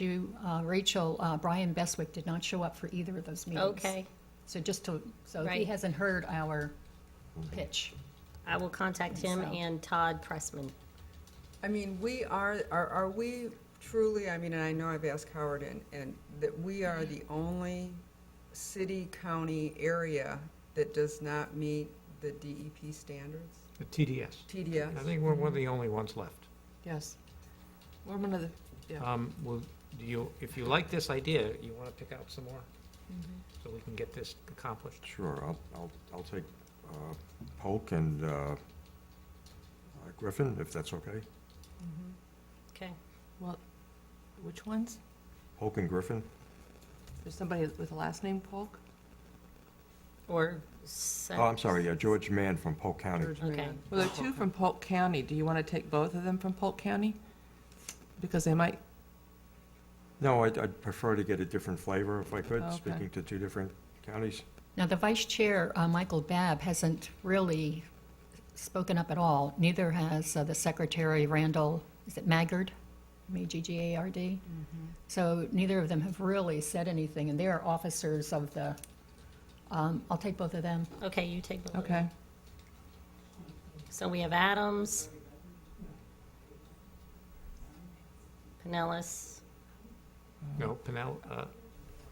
you, uh, Rachel, uh, Brian Beswick did not show up for either of those meetings. Okay, So just to, so he Right. hasn't heard our pitch. I will contact him So- and Todd Pressman. I mean, we are, are, are we truly, I mean, and I know I've asked Howard and, and that we are the only city, county area that does not meet the DEP standards, The TDS. TDS? I think we're one of the only ones left. Yes. We're one of the, Yeah. Um, Well, do you, if you like this idea, you want to pick out some more? Mm-hmm. So we can get this accomplished? Sure, I'll, I'll, I'll take uh, Polk and uh, uh, Griffin, if that's okay. Okay, well, which ones? Polk and Griffin, There's somebody with a last name Polk? or. oh, I'm sorry, yeah, George Mann from Polk County. George Okay. Mann. Well, there are two from Polk County. Do you want to take both of them from Polk County? Because they might, No, I'd, I'd prefer to get a different flavor if I could, Okay. speaking to two different counties. Now, the vice chair, uh, Michael Babb, hasn't really spoken up at all. Neither has uh, the secretary, Randall, is it Maggard? M-A-G-G-A-R-D? Mm-hmm. So neither of them have really said anything, and they are officers of the, um, I'll take both of them. Okay, you take both. of them. okay. So we have Adams. Pinellas. No, Pinell, uh,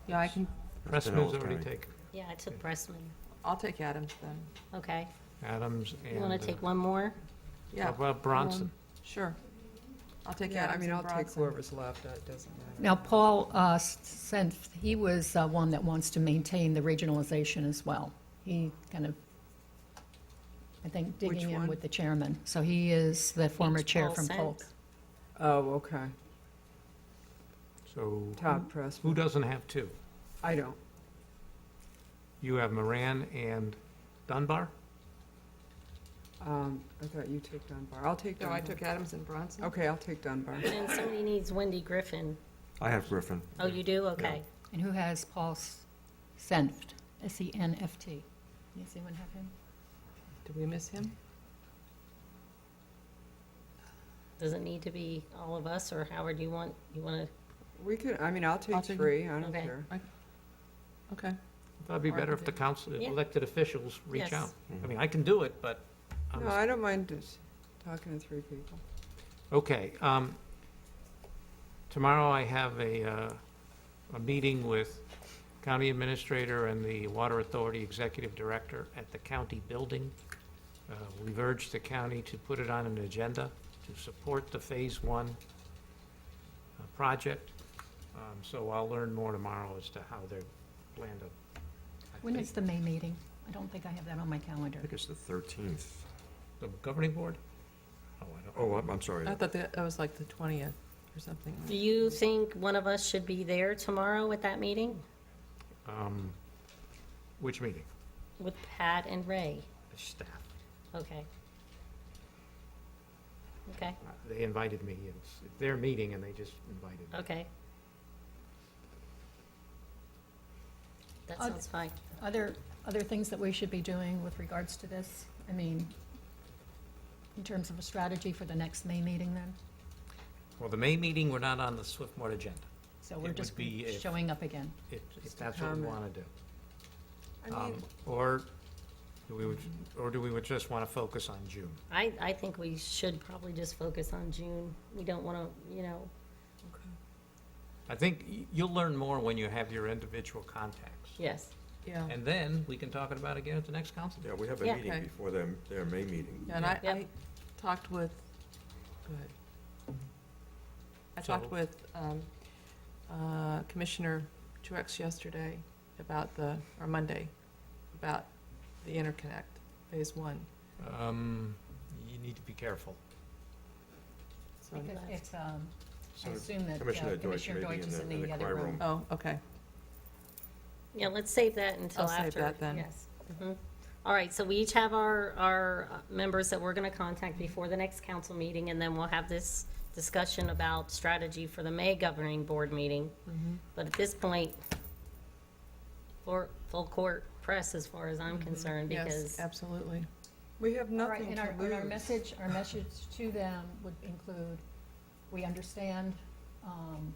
Yeah, I can, Pressman's Pinellas already County. taken, Yeah, I took Pressman. I'll take Adams then. Okay, Adams you and. want uh, to take one more? Yeah. Um, How about Bronson? Sure. I'll take Yeah, I Adams mean, I'll and take Bronson. whoever's left, it doesn't matter. Now, Paul uh, s- sent, he was uh, one that wants to maintain the regionalization as well. He kind of, I think, digging Which in one? with the chairman. So he is the former Each chair Paul from sent. Polk. Oh, okay, So Todd who Pressman, doesn't have two? I don't, You have Moran and Dunbar? um, I thought you took Dunbar, I'll take No, Dunbar. Oh, I took Adams and Bronson. Okay, I'll take Dunbar. And somebody needs Wendy Griffin. I have Griffin. Oh, you do? Okay. And who has Paul S- Senft, S-E-N-F-T? Does anyone have him? Did we miss him? Does it need to be all of us, or Howard, you want, you want We could, I mean, I'll I'll take take- three, I don't okay. care. Okay. That'd be better if the council, Yeah. elected officials reach Yes. out. I Mhm. mean, I can do it, but I'm No, a I don't mind just talking to three people. Okay, um, tomorrow I have a, uh, a meeting with County Administrator and the Water Authority Executive Director at the county building. Uh, we've urged the county to put it on an agenda to support the Phase One uh, project. Um, so I'll learn more tomorrow as to how they're planned to. I When think- is the May meeting? I don't think I have that on my calendar. I think it's the 13th. The governing board? Oh, I don't. Oh, I'm, I'm sorry. I thought that, that was like the twentieth or something. to, do you think one of us should be there tomorrow at that meeting Um, which meeting? with Pat and Ray? The staff. Okay. Okay, Uh, They invited me. It's their meeting and they just invited me. okay. That I'd- sounds fine. Other, other things that we should be doing with regards to this? I mean, in terms of a strategy for the next May meeting then? Well, the May meeting, we're not on the Swiftmore agenda, So It we're would just be if- showing up again. if, if that's what we comment. want to do. I mean, Um, Or do we, would- or do we would just want to focus on June? I, I think we should probably just focus on June. We don't want to, you know, I think y- you'll learn more when you have your individual contacts. yes. Yeah. And then we can talk about it again at the next council. Yeah, we have a Yeah. meeting Okay. before their, their May meeting. Yeah, And I, Yep. I talked with, go ahead. I So- talked with um, uh, Commissioner Truex yesterday about the, or Monday, about the interconnect, phase one. Um, you need to be careful. So, Because Right. it's, um, I So assume that uh, Commissioner Deutsch Commissioner may be Deutsch in is the, in the other choir room. room. oh, okay. Yeah, let's save that until I'll after. save that then. Yes. Mhm. All right, so we each have our, our uh, members that we're going to contact before the next council meeting, and then we'll have this discussion about strategy for the May governing board meeting. But at this point, for full court press, as far as I'm concerned, Yes, because, absolutely. we have All right, nothing and to our, and our lose. message, our message to them would include, we understand, um,